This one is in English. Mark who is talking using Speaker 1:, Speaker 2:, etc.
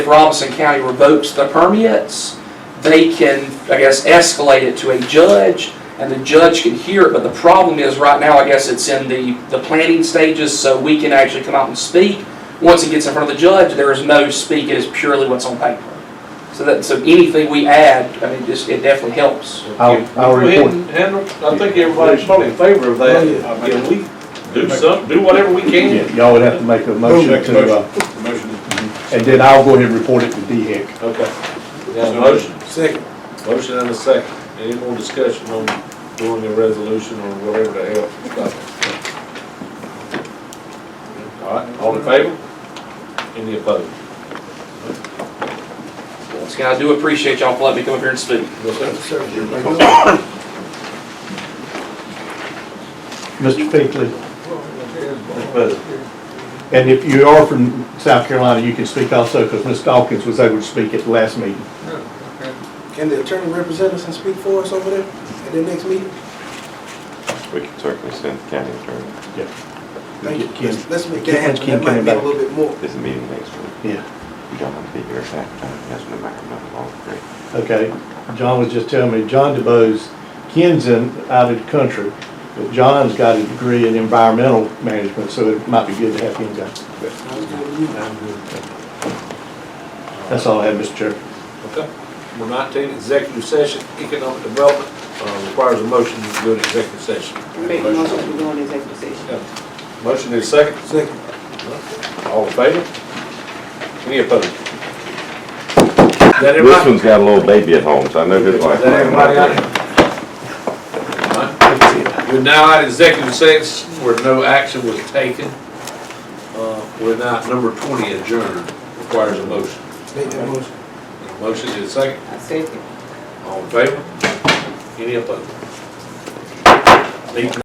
Speaker 1: If Robinson County revokes the permits, they can, I guess, escalate it to a judge, and the judge can hear it, but the problem is, right now, I guess it's in the, the planning stages, so we can actually come out and speak. Once it gets in front of the judge, there is no speak, it is purely what's on paper. So that, so anything we add, I mean, just, it definitely helps.
Speaker 2: I'll, I'll
Speaker 3: Go ahead
Speaker 2: report.
Speaker 3: and handle, I think everybody's probably in favor of that. I mean, we do some, do whatever we can.
Speaker 2: Yeah, Y'all would have to make a motion
Speaker 4: Make a
Speaker 2: to, uh, and then I'll go ahead and report it to E DHEC.
Speaker 3: Okay. Got a motion,
Speaker 4: Second.
Speaker 3: motion and a second. Any more discussion on doing a resolution or whatever the hell? it's about? All right, all in favor? Any opposed?
Speaker 1: Once again, I do appreciate y'all for letting me come up here and speak.
Speaker 3: No, sir.
Speaker 2: Mr. Pinkley,
Speaker 3: Mr. President.
Speaker 2: and if you are from South Carolina, you can speak also, because Ms. Dawkins was able to speak at the last meeting.
Speaker 4: Can the attorney represent us and speak for us over there at the next meeting?
Speaker 5: We can certainly send the county attorney,
Speaker 4: Thank you.
Speaker 2: Get Ken-
Speaker 4: Let's let's make
Speaker 2: get
Speaker 4: that happen.
Speaker 2: Ken
Speaker 4: That might
Speaker 2: coming
Speaker 4: be a
Speaker 2: back.
Speaker 4: little bit more.
Speaker 5: there's a meeting next week.
Speaker 2: Yeah,
Speaker 5: You don't want to be here at that time, that's no matter, not long, great.
Speaker 2: okay. John was just telling me, John DeBose, Ken's in, out of the country, but John's got a degree in environmental management, so it might be good to have him go. That's all I have, Mr. Chair.
Speaker 3: Okay. Number 19, executive session, economic development, uh, requires a motion to go to executive session.
Speaker 6: Make a motion to go into executive session.
Speaker 3: Motion is second.
Speaker 4: Second.
Speaker 3: All in favor? Any opposed? Is that
Speaker 5: This
Speaker 3: everybody?
Speaker 5: one's got a little baby at home, so I know his
Speaker 3: Is
Speaker 5: wife.
Speaker 3: that everybody out here? Alright. We're now at executive session where no action was taken. Uh, We're now at number 20 adjourned, requires a motion.
Speaker 4: Make that motion.
Speaker 3: Motion is second.
Speaker 6: I second.
Speaker 3: All in favor? Any opposed? Meeting